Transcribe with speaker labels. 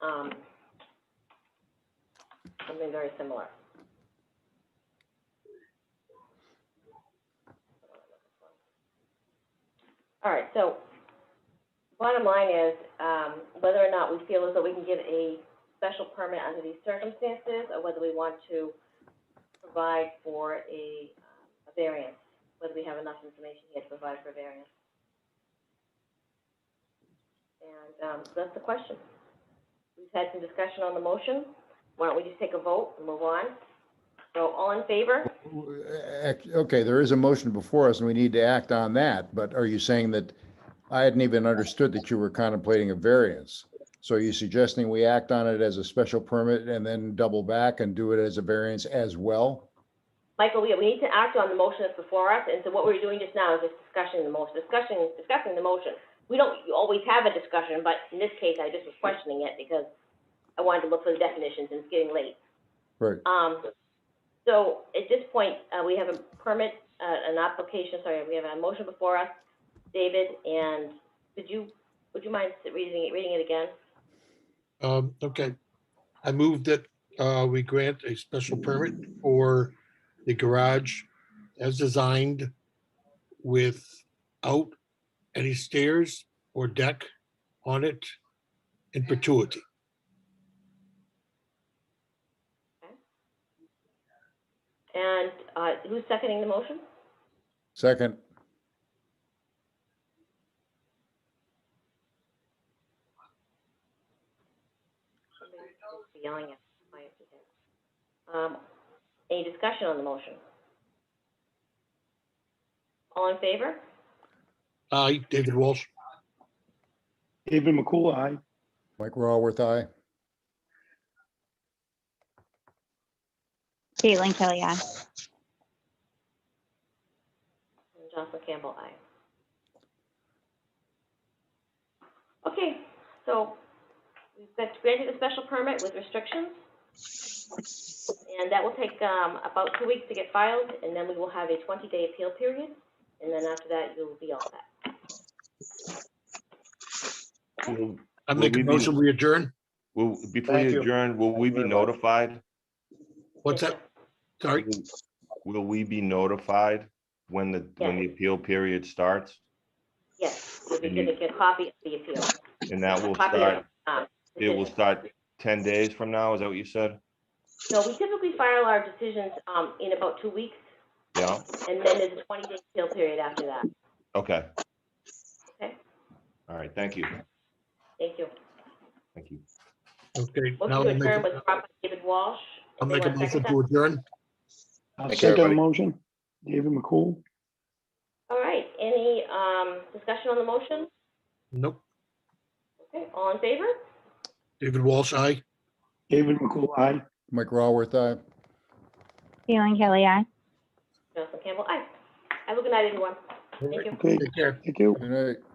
Speaker 1: um, something very similar. All right, so bottom line is, um, whether or not we feel as though we can get a special permit under these circumstances, or whether we want to provide for a, uh, a variance, whether we have enough information here to provide for a variance. And, um, so that's the question. We've had some discussion on the motion. Why don't we just take a vote and move on? So all in favor?
Speaker 2: Ac- Okay, there is a motion before us and we need to act on that, but are you saying that I hadn't even understood that you were contemplating a variance? So are you suggesting we act on it as a special permit and then double back and do it as a variance as well?
Speaker 1: Michael, we, we need to act on the motion that's before us, and so what we're doing just now is just discussing the motion, discussing, discussing the motion. We don't always have a discussion, but in this case, I just was questioning it because I wanted to look for the definitions and it's getting late.
Speaker 2: Right,
Speaker 1: Um, so at this point, uh, we have a permit, uh, an application, sorry, we have a motion before us. David, and could you, would you mind reading, it- reading it again?
Speaker 3: Um, okay. I move that, uh, we grant a special permit for the garage as designed without any stairs or deck on it in perpetuity.
Speaker 1: And, uh, who's seconding the motion?
Speaker 2: second,
Speaker 1: Somebody seems to be Yelling at my head. Um, any discussion on the motion? All in favor?
Speaker 3: Aye, David Walsh.
Speaker 4: David McCool, aye.
Speaker 2: Mike Raworth, aye.
Speaker 5: Caitlin Kelly, aye.
Speaker 1: And Jocelyn Campbell, aye. Okay, so we've got granted a special permit with restrictions. And that will take, um, about two weeks to get filed, and then we will have a twenty-day appeal period, and then after that, you'll be all set.
Speaker 6: Will,
Speaker 3: I make a
Speaker 6: Will we be-
Speaker 3: motion, we adjourn.
Speaker 6: will- before
Speaker 4: Thank
Speaker 6: you
Speaker 4: you.
Speaker 6: adjourn, will we be
Speaker 4: Very much.
Speaker 6: notified?
Speaker 3: What's that? Sorry,
Speaker 6: Will we be notified when the, when the
Speaker 1: Yes.
Speaker 6: appeal period starts?
Speaker 1: Yes, you'll be getting a copy of the appeal.
Speaker 6: And that will
Speaker 1: Copy of,
Speaker 6: start,
Speaker 1: um,
Speaker 6: it will
Speaker 1: decision.
Speaker 6: start ten days from now, is that what you said?
Speaker 1: No, we typically file our decisions um, in about two weeks,
Speaker 6: Yeah,
Speaker 1: and then there's a 20-day appeal period after that.
Speaker 6: okay.
Speaker 1: Okay.
Speaker 6: All right, thank you,
Speaker 1: Thank you.
Speaker 6: thank you.
Speaker 3: okay. now
Speaker 1: Motion
Speaker 3: I'll
Speaker 1: to adjourn
Speaker 3: make-
Speaker 1: was brought by David Walsh.
Speaker 3: I'll make a
Speaker 1: Anyone
Speaker 3: motion
Speaker 1: second
Speaker 3: to adjourn.
Speaker 4: I'll
Speaker 6: Thank you,
Speaker 4: second the
Speaker 6: everybody.
Speaker 4: motion. David McCool,
Speaker 1: that? All right, any um, discussion on the motion?
Speaker 3: Nope,
Speaker 1: Okay, all in favor?
Speaker 3: David Walsh, aye.
Speaker 4: David McCool, aye.
Speaker 2: Mike Raworth, aye.
Speaker 5: Caitlin Kelly, aye.
Speaker 1: Jocelyn Campbell, aye. Have a good night, everyone. Thank you.
Speaker 4: Okay,
Speaker 3: Take care.
Speaker 4: thank you.
Speaker 2: Good night.